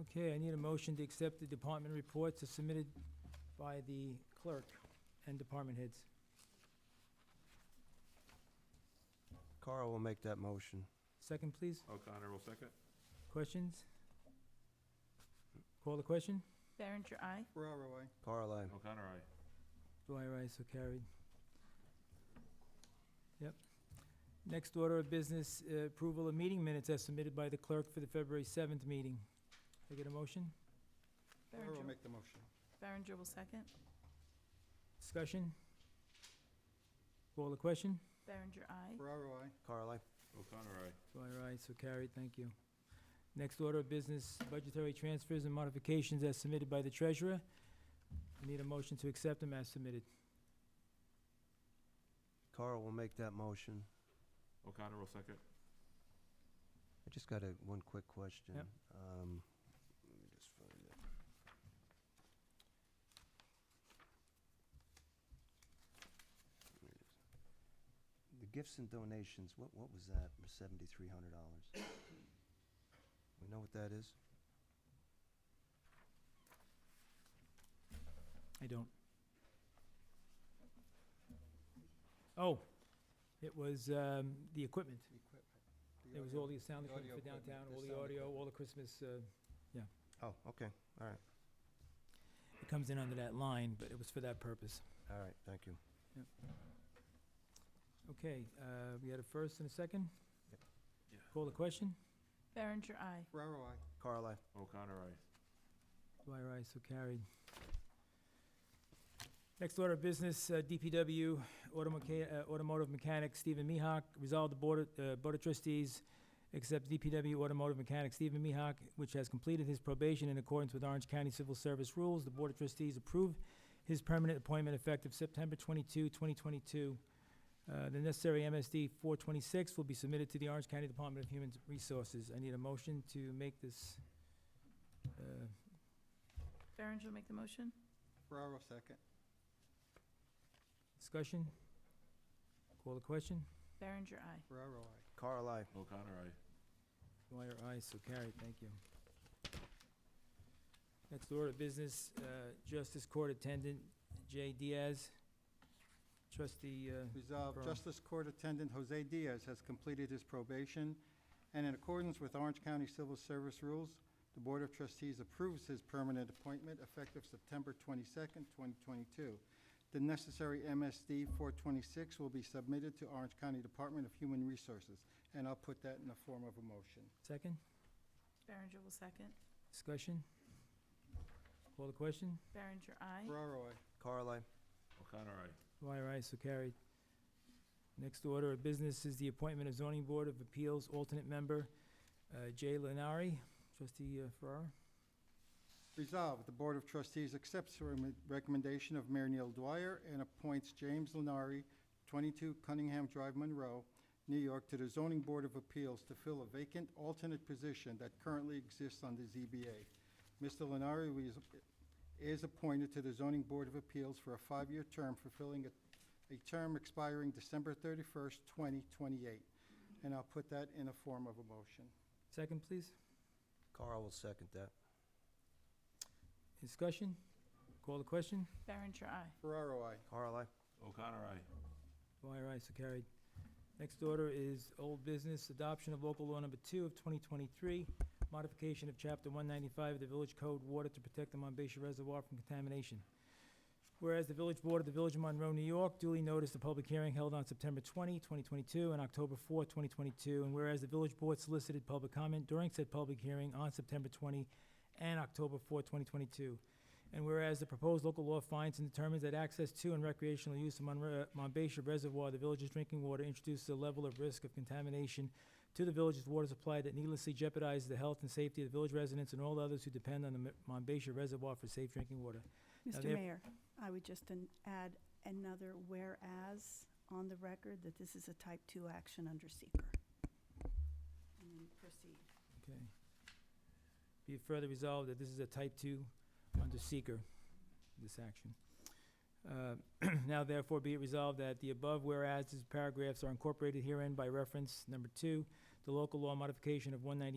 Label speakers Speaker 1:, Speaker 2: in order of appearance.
Speaker 1: Okay, I need a motion to accept the department reports as submitted by the clerk and department heads.
Speaker 2: Carl will make that motion.
Speaker 1: Second, please.
Speaker 3: O'Connor will second.
Speaker 1: Questions? Call the question?
Speaker 4: Berenger, aye.
Speaker 5: Ferraro, I.
Speaker 2: Carl, I.
Speaker 3: O'Connor, aye.
Speaker 1: Dwyer, aye, so carried. Yep. Next order of business, uh, approval of meeting minutes as submitted by the clerk for the February seventh meeting. Can I get a motion?
Speaker 5: Ferraro
Speaker 4: Berenger-
Speaker 5: make the motion.
Speaker 4: Berenger will second.
Speaker 1: Discussion? Call the question?
Speaker 4: Berenger, aye.
Speaker 5: Ferraro, I.
Speaker 2: Carl, I.
Speaker 3: O'Connor, aye.
Speaker 1: Dwyer, aye, so carried, thank you. Next order of business, budgetary transfers and modifications as submitted by the treasurer. I Need a motion to accept them as submitted.
Speaker 2: Carl will make that motion.
Speaker 3: O'Connor will second.
Speaker 2: I just got a, one quick question.
Speaker 1: Yep.
Speaker 2: Um, let me just find it. There it is. The gifts and donations, what, what was that, seventy-three hundred dollars? We know what that is?
Speaker 1: I don't. Oh, it was, um, the equipment.
Speaker 5: The equipment.
Speaker 1: It was all the sound equipment
Speaker 5: the
Speaker 1: for
Speaker 5: audio equipment,
Speaker 1: downtown,
Speaker 5: the
Speaker 1: all the
Speaker 5: sound
Speaker 1: audio,
Speaker 5: equipment.
Speaker 1: all the Christmas, uh,
Speaker 2: Oh, okay, all right,
Speaker 1: it comes in under that line, but it was for that purpose.
Speaker 2: all right, thank you.
Speaker 1: Okay, uh, we had a first and a second?
Speaker 2: Yep.
Speaker 3: Yeah.
Speaker 1: Call the question?
Speaker 4: Berenger, aye.
Speaker 5: Ferraro, I.
Speaker 2: Carl, I.
Speaker 3: O'Connor, aye.
Speaker 1: Dwyer, aye, so carried. Next order of business, uh, DPW automecha- uh, Automotive Mechanic Stephen Mihawk. Resolve the Board of- uh, Board of Trustees accept DPW Automotive Mechanic Stephen Mihawk, which has completed his probation in accordance with Orange County Civil Service rules. The Board of Trustees approve his permanent appointment effective September 22, 2022. Uh, The necessary MSD 426 will be submitted to the Orange County Department of Human Resources. I need a motion to make this uh,
Speaker 4: Berenger will make the motion.
Speaker 5: Ferraro, second.
Speaker 1: Discussion? Call the question?
Speaker 4: Berenger, aye.
Speaker 5: Ferraro, I.
Speaker 2: Carl, I.
Speaker 3: O'Connor, aye.
Speaker 1: Dwyer, aye, so carried, thank you. Next order of business, uh, Justice Court Attendant Jay Diaz. Trustee, uh,
Speaker 5: Resolved,
Speaker 1: Ferraro.
Speaker 5: Justice Court Attendant Jose Diaz has completed his probation, and in accordance with Orange County Civil Service rules, the Board of Trustees approves his permanent appointment effective September twenty-second, twenty twenty-two. The necessary MSD four twenty-six will be submitted to Orange County Department of Human Resources, and I'll put that in the form of a motion.
Speaker 1: second?
Speaker 4: Berenger will second.
Speaker 1: Discussion? Call the question?
Speaker 4: Berenger, aye.
Speaker 5: Ferraro, I.
Speaker 2: Carl, I.
Speaker 3: O'Connor, aye.
Speaker 1: Dwyer, aye, so carried. Next order of business is the appointment of Zoning Board of Appeals alternate member, uh, Jay Lenari. Trustee uh, Farrar?
Speaker 5: Resolved, the Board of Trustees accepts the rem- recommendation of Mayor Neil Dwyer and appoints James Lenari, 22 Cunningham Drive, Monroe, New York, to the Zoning Board of Appeals to fill a vacant alternate position that currently exists on the ZBA. Mr. Lenari was- is appointed to the Zoning Board of Appeals for a five-year term, fulfilling a- a term expiring December 31st, 2028. And I'll put that in a form of a motion.
Speaker 1: Second, please?
Speaker 2: Carl will second that.
Speaker 1: Discussion? Call the question?
Speaker 4: Berenger, aye.
Speaker 5: Ferraro, I.
Speaker 2: Carl, I.
Speaker 3: O'Connor, aye.
Speaker 1: Dwyer, aye, so carried. Next order is old business, adoption of local law number two of 2023, modification of chapter 195 of the Village Code Water to protect the Monbassia Reservoir from contamination. Whereas the Village Board of the Village of Monroe, New York duly noticed the public hearing held on September 20, 2022, and October 4, 2022, and whereas the Village Board solicited public comment during said public hearing on September 20 and October 4, 2022, and whereas the proposed local law finds and determines that access to and recreational use of Monre- Monbassia Reservoir, the village's drinking water, introduces a level of risk of contamination to the village's water supply that needlessly jeopardizes the health and safety of the village residents and all others who depend on the Mo- Monbassia Reservoir for safe drinking water. Now,
Speaker 6: Mr.
Speaker 1: there-
Speaker 6: Mayor, I would just an- add another whereas on the record that this is a type two action under seeker. And then proceed.
Speaker 1: Okay. Be it further resolved that this is a type two under seeker, this action. Uh, Now therefore be it resolved that the above whereas paragraphs are incorporated herein by reference, number two, the local law modification of one ninety